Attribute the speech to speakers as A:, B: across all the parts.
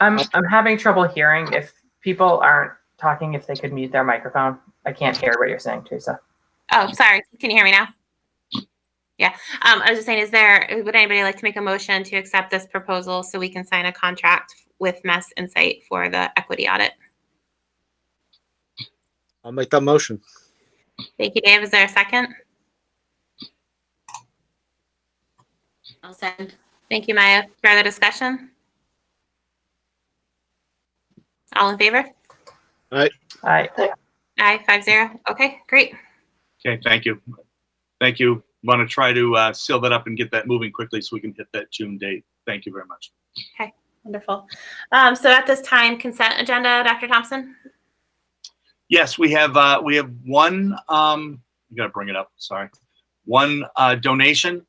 A: I'm, I'm having trouble hearing if people aren't talking, if they could mute their microphone. I can't hear what you're saying, Teresa.
B: Oh, sorry. Can you hear me now? Yeah. Um, I was just saying, is there, would anybody like to make a motion to accept this proposal so we can sign a contract with Mass Insight for the equity audit?
C: I'll make that motion.
B: Thank you, Dave. Is there a second?
D: I'll send.
B: Thank you, Maya. Further discussion? All in favor?
A: I,
B: Aye, five zero. Okay, great.
E: Okay, thank you. Thank you. Want to try to uh, seal that up and get that moving quickly so we can hit that June date. Thank you very much.
B: Wonderful. Um, so at this time, consent agenda, Dr. Thompson?
E: Yes, we have, uh, we have one, um, you gotta bring it up, sorry. One, uh, donation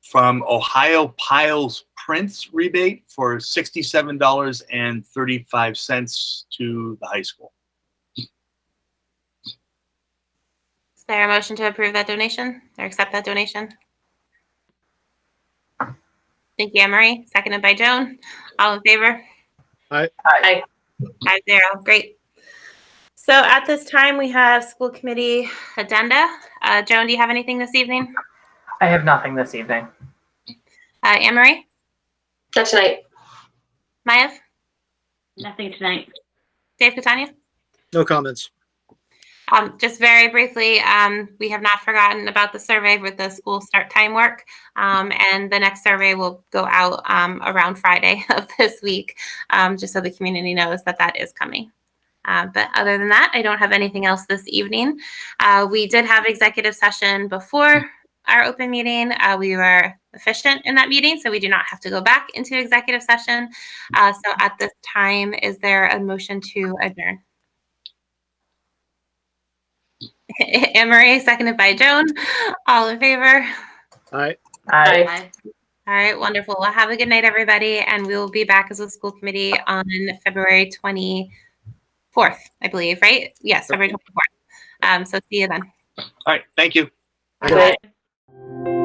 E: from Ohio Piles Prince rebate for sixty-seven dollars and thirty-five cents to the high school.
B: Is there a motion to approve that donation or accept that donation? Thank you, Anne Marie. Seconded by Joan. All in favor?
C: Aye.
B: Aye. Five zero. Great. So at this time, we have school committee addenda. Uh, Joan, do you have anything this evening?
A: I have nothing this evening.
B: Uh, Anne Marie?
D: Not tonight.
B: Maya?
D: Nothing tonight.
B: Dave Catania?
C: No comments.
B: Um, just very briefly, um, we have not forgotten about the survey with the school start time work. Um, and the next survey will go out um, around Friday of this week, um, just so the community knows that that is coming. Uh, but other than that, I don't have anything else this evening. Uh, we did have executive session before our open meeting. Uh, we were efficient in that meeting, so we do not have to go back into executive session. Uh, so at this time, is there a motion to adjourn? Anne Marie, seconded by Joan. All in favor?
C: All right.
A: I,
D: Bye.
B: All right, wonderful. Well, have a good night, everybody, and we will be back as a school committee on February 24th, I believe, right? Yes, February 24th. Um, so see you then.
E: All right, thank you.
D: Bye.